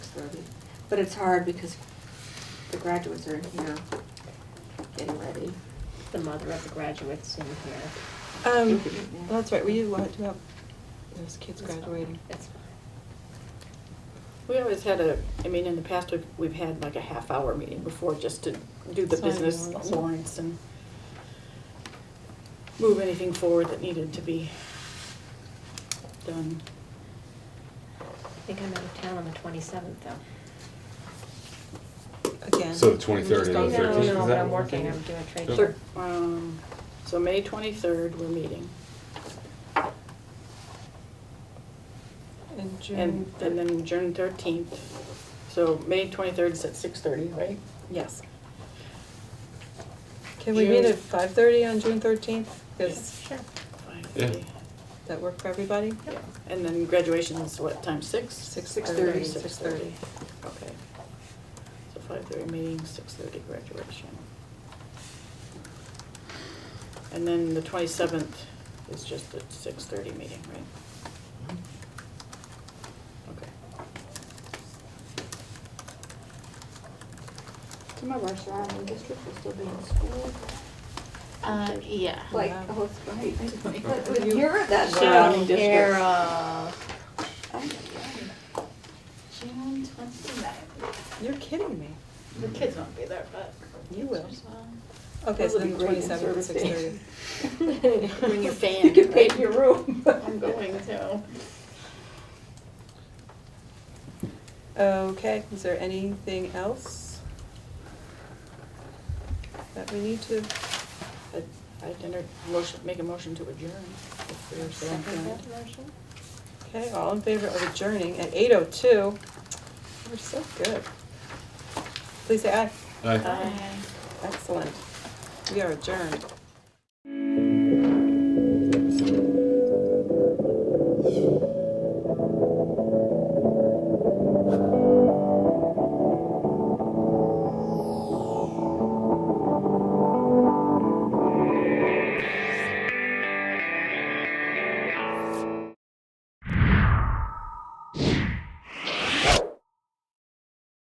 But it's hard because the graduates are in here getting ready. The mother of the graduates in here. Um, that's right, we did want to have those kids graduating. That's fine. We always had a, I mean, in the past, we've, we've had like a half hour meeting before just to do the Sign business warrants. warrants and move anything forward that needed to be done. I think I'm out of town on the twenty-seventh though. Again. So the 23rd Just and the don't- No, 13th, is no, but that I'm what we're working, thinking? I'm doing trade So- show. Thir- um, So May twenty-third, we're meeting, And and, June. and then June thirteenth. So May twenty-third is at six-thirty, right? Yes. Can we meet June. at five thirty on June thirteenth? Does Sure. Five-thirty. that work for everybody? Yeah, and then graduation is what, time, six? Six thirty. Six thirty, okay. So five thirty meeting, six thirty graduation. And then the twenty-seventh is just a six thirty meeting, right? Okay. Some of our surrounding districts will still be in school. Uh, yeah. Like, Wow. oh, it's right. But But you hear that So, surrounding district. Carol, Oh, yeah. June twenty-ninth. You're kidding me. The kids won't be there, but. You will. Well, Okay, Those so would then be great in twenty-seventh at six thirty. service Bring your fan. You can paint right? your room. I'm going to. Okay, is there anything else that we need to, I'd- I'd enter, motion, make a motion to adjourn. if we're so inclined. okay, all in favor of adjourning at eight oh two? We're so good. Please say aye. Aye. Aye. Excellent. We are adjourned.